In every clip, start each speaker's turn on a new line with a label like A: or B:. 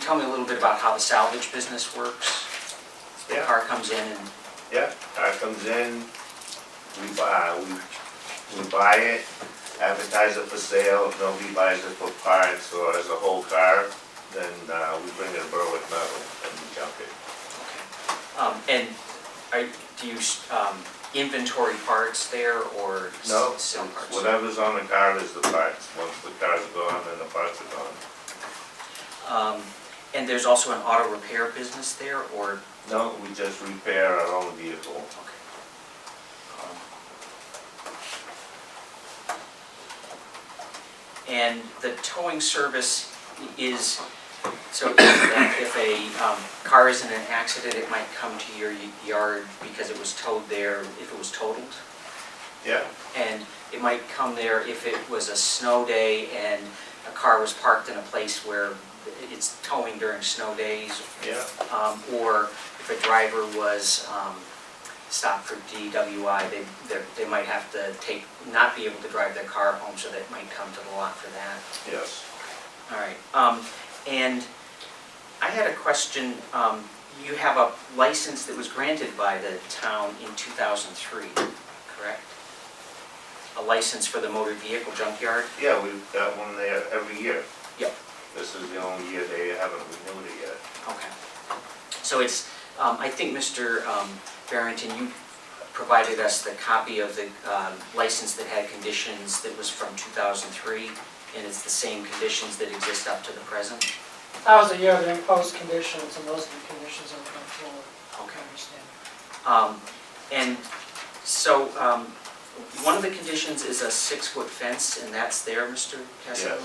A: tell me a little bit about how the salvage business works? The
B: Yeah.
A: car comes in and,
B: Yeah, car comes in, we buy, we, we buy it, advertise it for sale, if nobody buys it for parts or as a whole car, then, uh, we bring it to Berwick Metal and we junk it.
A: um, and are, do you, um, inventory parts there or s-
B: No,
A: sell parts?
B: Whatever's on the car is the parts, once the car's gone, then the parts are gone.
A: Um, and there's also an auto repair business there or,
B: No, we just repair our own vehicle.
A: okay. Um, And the towing service is, so if if a, um, car is in an accident, it might come to your y- yard because it was towed there, if it was totaled?
B: Yeah,
A: and it might come there if it was a snow day and a car was parked in a place where it's towing during snow days,
B: yeah,
A: um, or if a driver was um, stopped for DWI, they, they're- they might have to take, not be able to drive their car home, so that might come to the lot for that.
B: yes.
A: All right, um, and I had a question, um, you have a license that was granted by the town in two thousand three, correct? A license for the motor vehicle junkyard?
B: Yeah, we've got one there every year.
A: Yep.
B: This is the only year they haven't renewed it yet.
A: Okay. So it's, um, I think, Mr. um, Barrington, you provided us the copy of the, um, license that had conditions that was from two thousand three, and it's the same conditions that exist up to the present?
C: That was a year of imposed conditions, and those are the conditions that come forward, I
A: Okay.
C: understand.
A: Um, And so, um, one of the conditions is a six-foot fence, and that's there, Mr. Castello?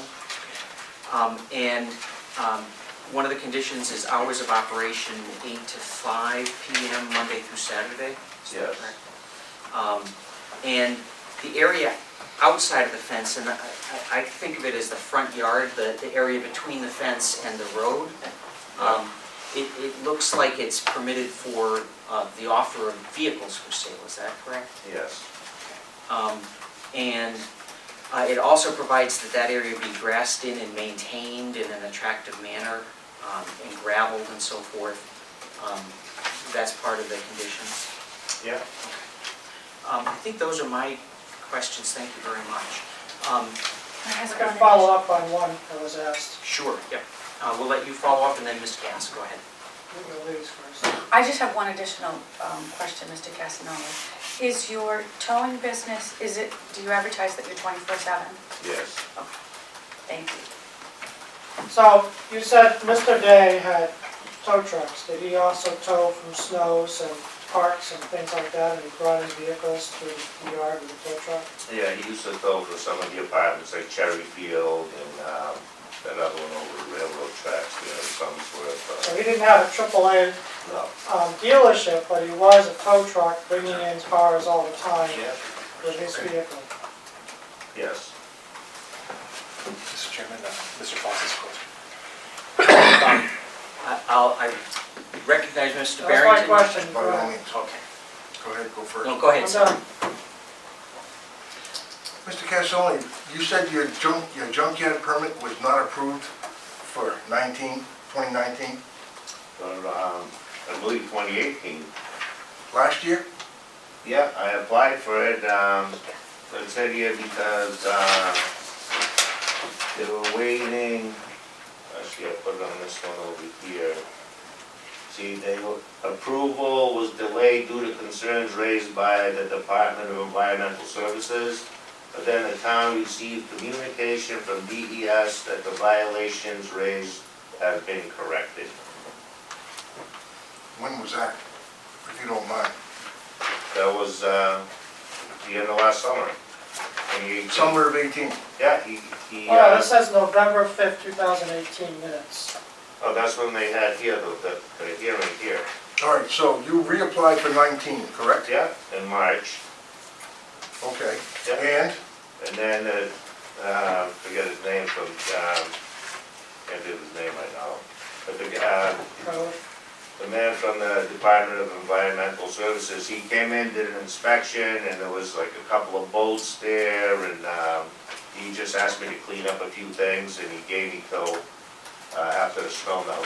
A: Um, And um, one of the conditions is hours of operation, eight to five PM, Monday through Saturday? Is that
B: Yes.
A: correct? Um, And the area outside of the fence, and I- I I think of it as the front yard, the the area between the fence and the road, um, It, it looks like it's permitted for uh, the offer of vehicles for sale, is that correct?
B: Yes,
A: Um, And uh, it also provides that that area be grassed in and maintained in an attractive manner um, and gravelled and so forth. Um, That's part of the conditions.
B: yeah.
A: Um, I think those are my questions, thank you very much. Um,
C: I can follow up on one that was asked,
A: Sure, yep, Uh, we'll let you follow up and then Ms. Gass, go ahead.
C: the ladies first.
D: I just have one additional um, question, Mr. Casanova. Is your towing business, is it, do you advertise that you're 24/7?
B: Yes,
D: Thank you.
C: So, you said Mr. Day had tow trucks, did he also tow from snows and parks and things like that, and he brought his vehicles to the yard with a tow truck?
B: yeah, he used to tow for some of the apartments, like Cherry Field and, um, that other one over the railroad tracks, you know, some sort
C: So
B: of,
C: he didn't have a AAA
B: uh, no.
C: um, dealership, but he was a tow truck bringing in cars all the time
B: Yeah,
C: with his vehicle.
B: yes,
E: Mr. Chairman, uh, Mr. Foss's question.
A: Um, I- I'll, I recognize Mr.
C: That was my
A: Barrington.
C: question,
E: By
C: go
E: all
C: ahead.
E: means, okay. Go ahead, go first.
A: No, go ahead,
C: I'm
A: sir.
C: done.
E: Mr. Castelli, you said your junk, your junkyard permit was not approved for 19, 2019,
B: but, um, I believe twenty eighteen.
E: last year?
B: Yeah, I applied for it, um, but it said here because, uh, they were waiting, actually, I put it on this one over here. See, they, were- approval was delayed due to concerns raised by the Department of Environmental Services. But then the town received communication from DES that the violations raised have been corrected.
F: When was that, if you don't mind?
B: That was, uh, the end of last summer. 2018.
F: Summer of 18.
B: Yeah, he, he,
C: Well,
B: uh,
C: this says November 5th, 2018 minutes.
B: oh, that's when they had here, the, the- the hearing here.
F: All right, so you reapplied for 19, correct?
B: Yeah, in March,
F: Okay.
B: yeah,
F: And,
B: and then, uh, uh, forget his name from, um, can't think of his name right now. But the, uh,
C: So,
B: the man from the Department of Environmental Services, he came in, did an inspection, and there was like a couple of bolts there, and, um, he just asked me to clean up a few things, and he gave me till, uh, after the snow melt